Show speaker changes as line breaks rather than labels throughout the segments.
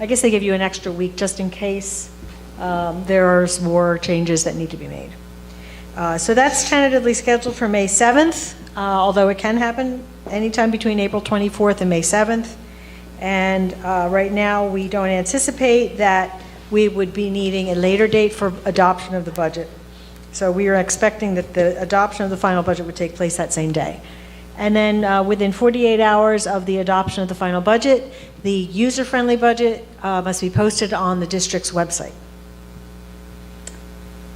I guess they give you an extra week just in case um, there are some more changes that need to be made. Uh, So that's tentatively scheduled for May 7th, uh, although it can happen anytime between April 24th and May 7th. And uh, right now, we don't anticipate that we would be needing a later date for adoption of the budget. So we are expecting that the adoption of the final budget would take place that same day. And then uh, within 48 hours of the adoption of the final budget, the user-friendly budget uh, must be posted on the district's website.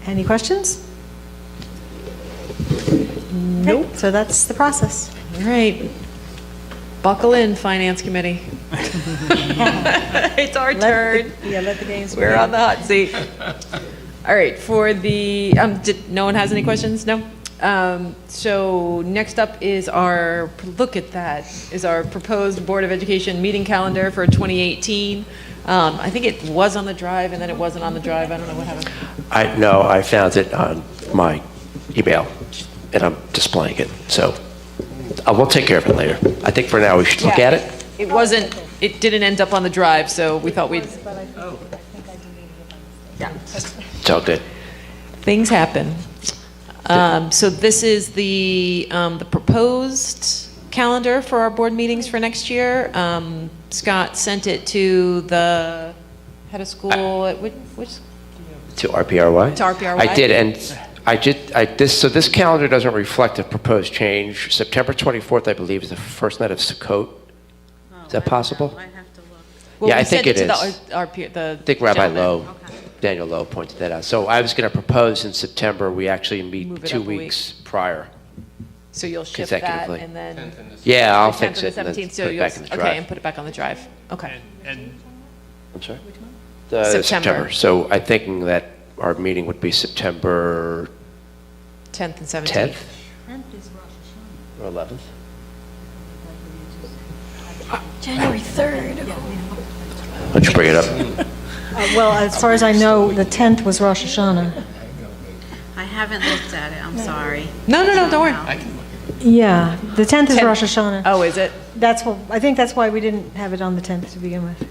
Any questions? Nope. So that's the process.
All right. Buckle in, Finance Committee. It's our turn.
Yeah, let the games
We're on the hot seat. All right, for the, um, did, no one has any questions? No? Um, so next up is our, look at that, is our proposed Board of Education meeting calendar for 2018. Um, I think it was on the drive and then it wasn't on the drive. I don't know what happened.
I, no, I found it on my email, and I'm displaying it, so uh, we'll take care of it later. I think for now, we should look
Yeah.
at it.
It wasn't, it didn't end up on the drive, so we thought we'd,
It's all good.
things happen. Um, So this is the, um, the proposed calendar for our board meetings for next year. Um, Scott sent it to the head of school, at which, which-
To RPRY?
To RPRY.
I did, and I did, I, this, so this calendar doesn't reflect a proposed change. September 24th, I believe, is the first night of
Oh,
Sukkot. Is that possible? I
well,
Yeah, I
we sent
think it
to the-
is.
Our, peer- the.
think Rabbi
gentleman.
Lowe, Daniel Lowe pointed that out. So I was going to propose in September, we actually
Move
meet
it
two
up a week.
weeks prior.
So you'll shift that
consecutively.
and then.
Yeah, I'll
The 10th
fix
and
it and
the
then
17th, so
put it
you'll-
back in the drive.
Okay, and put it back on the drive. Okay.
And
I'm sorry? The
September.
September. So I'm thinking that our meeting would be September
10th and 17th.
10th? Or 11th?
January 3rd.
Why don't you bring it up?
Uh, Well, as far as I know, the 10th was Rosh Hashanah.
I haven't looked at it, I'm sorry.
No, no, no, don't worry.
Yeah, the 10th is
Ten-
Rosh Hashanah.
Oh, is it?
That's what, I think that's why we didn't have it on the 10th to begin with.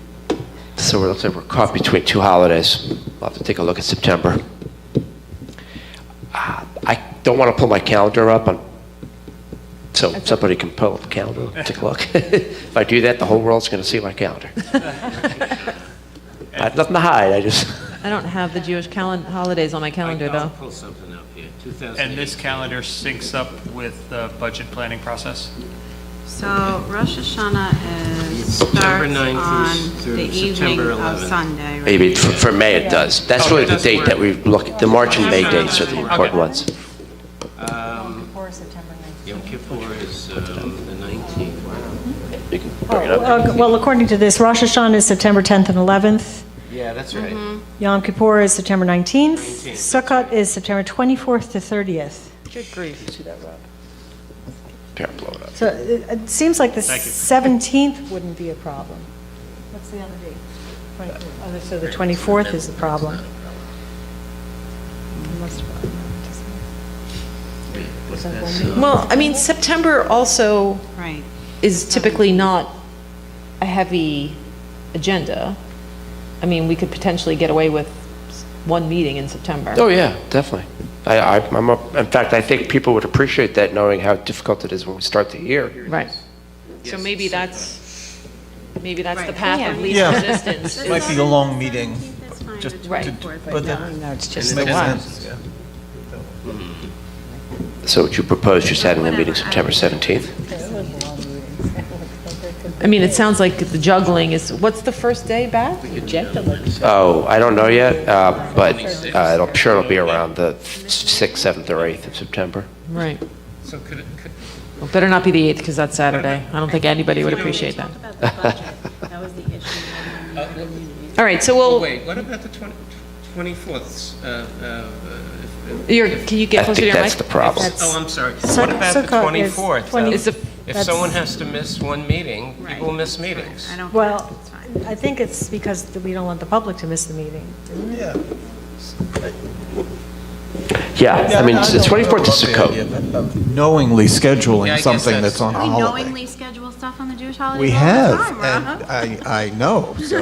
So it looks like we're caught between two holidays. We'll have to take a look at September. Ah, I don't want to pull my calendar up, on- so somebody can pull up the calendar, take a look. If I do that, the whole world's going to see my calendar. I have nothing to hide, I just,
I don't have the Jewish calendar, holidays on my calendar, though.
Pull something up here,
and
2000.
this calendar syncs up with the budget planning process?
So Rosh Hashanah is,
September
starts
9th
on
through-
the
through
evening
September
of
11th.
Sunday, right?
maybe for for May Oh, it does. That's really the date that we look, the March and May dates are the important ones.
Yom Kippur is um, the 19th.
You can bring it up.
Oh, Well, according to this, Rosh Hashanah is September 10th and 11th.
Yeah, that's right.
Yom Kippur is September 19th. Sukkot is September 24th to 30th.
Good grief.
Here, blow it up.
So it it seems like the
Thank you.
17th wouldn't be a problem. What's the other date? 24th. Oh, So the 24th is the problem.
Well, I mean, September also
Right.
is typically not a heavy agenda. I mean, we could potentially get away with s- one meeting in September.
Oh, yeah, definitely. I, I- I'm, a- in fact, I think people would appreciate that, knowing how difficult it is when we start the year.
Right. So maybe that's, maybe that's the
Right.
path of least
Yeah.
resistance.
Might be a long meeting,
That's fine, the
just,
24th,
but then.
no.
it's
just the
yeah.
So would you propose just having a meeting September 17th?
I mean, it sounds like the juggling is, what's the first day back?
Oh, I don't know yet, uh, but uh, it'll- I'm sure it'll be around the 6th, 7th, or 8th of September.
Right.
So could, it- could,
Well, better not be the 8th because that's Saturday. I don't think anybody would appreciate that.
Talk about the budget, that was the issue.
All right, so we'll,
Wait, what about the 20 24th? uh, uh, if-
you're, can you
I
get closer to
think
your mic?
that's the problem.
if- Oh, I'm sorry.
Suk-
What about the
Sukkot is
24th?
20
Um,
It's the-
If
that's-
someone has to miss one meeting,
Right.
people miss meetings.
I don't,
Well,
it's fine.
I think it's because we don't want the public to miss the meeting.
Yeah, I mean, it's
don't-
it's 24th is
I don't love the
Sukkot.
idea of- of Knowingly
Yeah, I
scheduling
guess
something
that's-
that's on a
We
holiday.
knowingly schedule stuff on the Jewish holidays
We
all the
have,
time, Rob.
and I, I know, so.